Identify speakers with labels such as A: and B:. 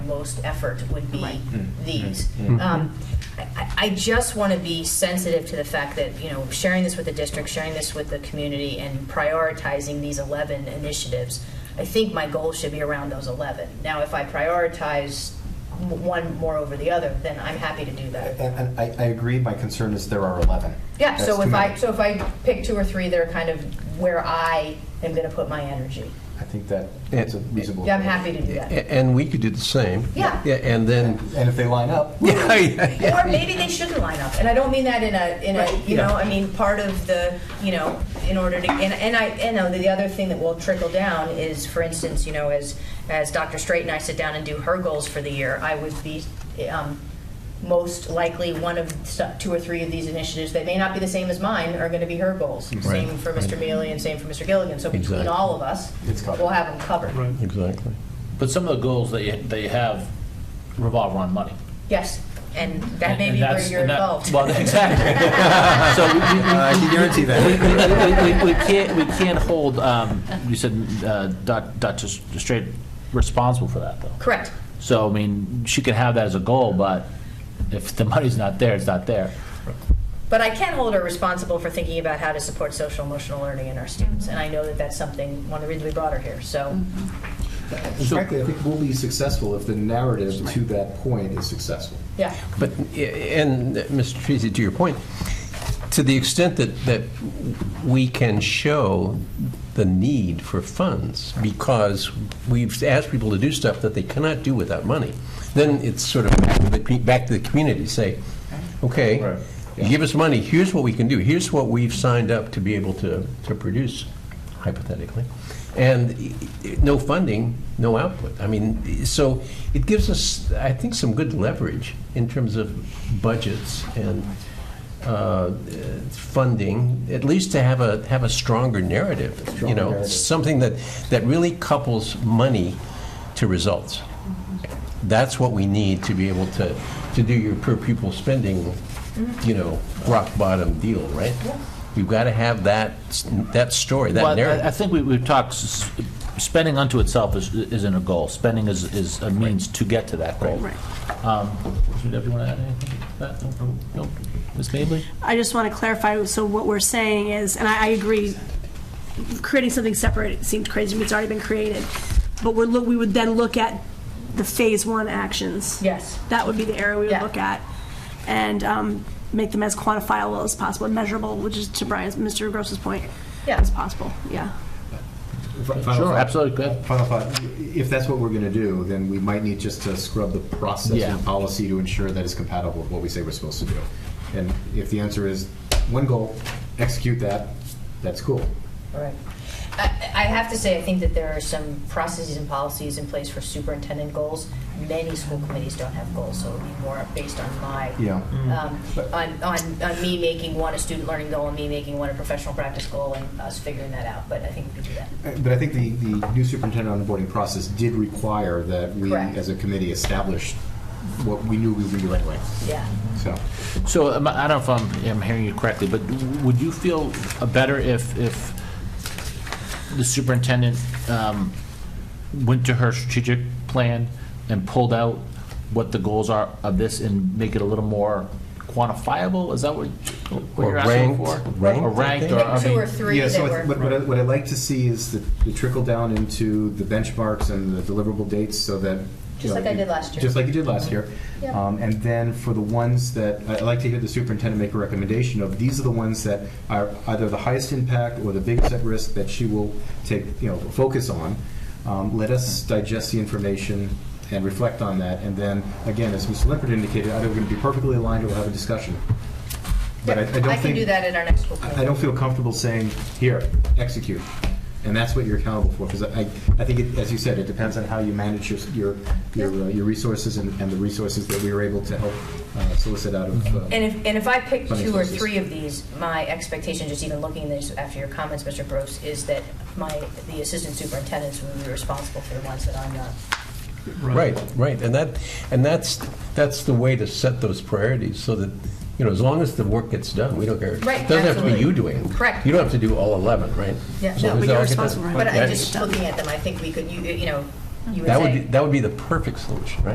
A: most effort would be
B: Right.
C: Mm,
A: these.
C: mm, mm.
A: Um, I- I, I just want to be sensitive to the fact that, you know, sharing this with the district, sharing this with the community, and prioritizing these 11 initiatives, I think my goal should be around those 11. Now, if I prioritize m- one more over the other, then I'm happy to do that.
C: And, and I, I agree, my concern is there are 11.
A: Yeah,
C: That's
A: so
C: too
A: if I,
C: many.
A: so if I pick two or three, they're kind of where I am going to put my energy.
C: I think that that's a reasonable.
A: Yeah, I'm happy to do that.
D: A- And we could do the same.
A: Yeah.
D: And then,
C: And if they line up,
D: yeah, yeah,
A: Or maybe they shouldn't line up, and I don't mean that in a, in a, you know, I mean, part of the, you know, in order to, and, and I, you know, the other thing that will trickle down is, for instance, you know, as, as Dr. Straight and I sit down and do her goals for the year, I would be, um, most likely one of so- two or three of these initiatives that may not be the same as mine are gonna be her goals. Same for Mr. Mealy and same for Mr. Gilligan, so between
D: Mm-hmm. Exactly.
A: all of us,
C: It's covered.
A: we'll have them covered.
E: Right.
D: exactly.
F: But some of the goals that you, that you have revolve around money.
A: Yes, and that may
F: And
A: be where
F: that's-
A: you're
F: and that-
A: involved.
F: Well, exactly. So we- we- we-
C: I can guarantee
F: we,
C: that.
F: we- we- we can't, we can't hold, um, you said, uh, Doc- Dr. Straight responsible for that, though.
A: Correct.
F: So, I mean, she can have that as a goal, but if the money's not there, it's not there.
A: But I can hold her responsible for thinking about how to support social emotional learning in our students, and I know that that's something, one of the reasons we brought her here, so.
C: And Frankly, I think we'll be successful if the narrative to that point is successful.
A: Yeah,
D: But, and uh, Mr. Treasy, to your point, to the extent that, that we can show the need for funds because we've asked people to do stuff that they cannot do without money, then it's sort of back to the, pe- back to the community, say, okay,
F: Right.
D: you give us money, here's what we can do, here's what we've signed up to be able to, to produce, hypothetically. And i- i- no funding, no output. I mean, so it gives us, I think, some good leverage in terms of budgets and uh, uh, funding, at least to have a, have a stronger narrative, you
C: Stronger
D: know,
C: narrative.
D: something that, that really couples money to results. That's what we need to be able to, to do your per pupil spending,
A: Mm-hmm.
D: you know, rock bottom deal, right? You've got to have that, s- that story, that
F: Well, I-
D: narrative.
F: I think we- we've talked, s- spending unto itself is- isn't a goal. Spending is is a means to get to that goal.
B: Right.
F: Um, Deb, you want to add anything to that? No? No? Ms. Mably?
B: I just want to clarify, so what we're saying is, and I, I agree, creating something separate seemed crazy to me, it's already been created. But we're, look- we would then look at the phase one actions.
A: yes.
B: That would be the area we would
A: Yeah.
B: look at, and um, make them as quantifiable as possible, and measurable, which is to Brian's, Mr. Gross's point,
A: Yeah.
B: as possible, yeah.
C: Final
F: Sure,
C: thought.
F: absolutely, go ahead.
C: Final thought, if that's what we're going to do, then we might need just to scrub the process
F: Yeah.
C: and policy to ensure that it's compatible with what we say we're supposed to do. And if the answer is one goal, execute that, that's cool.
A: All right. I I have to say, I think that there are some processes and policies in place for superintendent goals. Many school committees don't have goals, so it would be more based on my,
C: Yeah.
A: um, on, on on me making one a student learning goal and me making one a professional practice goal and us figuring that out, but I think we could do that.
C: Uh, But I think the, the new superintendent onboarding process did require that we,
A: Correct.
C: as a committee, establish what we knew we would do anyway,
A: Yeah.
C: so.
F: So am I I don't know if I'm, I'm hearing you correctly, but would you feel better if, if the superintendent um, went to her strategic plan and pulled out what the goals are of this and make it a little more quantifiable? Is that what what
D: Or
F: you're asking
D: ranked-
F: for?
D: ranked,
F: Or
D: I
F: ranked,
D: think.
F: or, I
A: Pick two or
F: mean,
A: three
C: Yeah,
A: that
C: so I
A: were.
C: th- what, what I- what I'd like to see is the, the trickle down into the benchmarks and the deliverable dates so that. you
A: Just
C: know,
A: like I
C: you-
A: did last year. Mm-hmm.
C: Just like you did last year.
A: Yeah.
C: Um, and then for the ones that, I- I'd like to hear the superintendent make a recommendation of, these are the ones that are either the highest impact or the biggest at risk that she will take, you know, focus on. Um, let us digest the information and reflect on that. And then, again, as Mr. Lippert indicated, either we're going to be perfectly aligned or we'll have a discussion. But I, I don't think.
A: can do that at our next school committee.
C: I I don't feel comfortable saying, here, execute. And that's what you're accountable for, because I, I think, it- as you said, it depends on how you manage your, your, your uh, your resources and and the resources that we were able to help uh, solicit out of. uh,
A: And if, and if I pick
C: Funding
A: two or
C: sources.
A: three of these, my expectation, just even looking at this after your comments, Mr. Gross, is that my, the assistant superintendents will be responsible for the ones that I'm not.
D: Right, right, and that, and that's, that's the way to set those priorities, so that, you know, as long as the work gets done, we don't care.
A: Right,
D: It Doesn't have to be
A: absolutely.
D: you doing. it.
A: Correct.
D: You don't have to do all 11, right?
A: Yeah,
D: As
A: no,
D: long
A: but you're
D: as they all get done.
B: responsible for it.
A: But I,
D: Right.
A: just looking at them, I think we could, you, you know, you would
D: That would,
A: say-
D: be- that would be the perfect solution, right?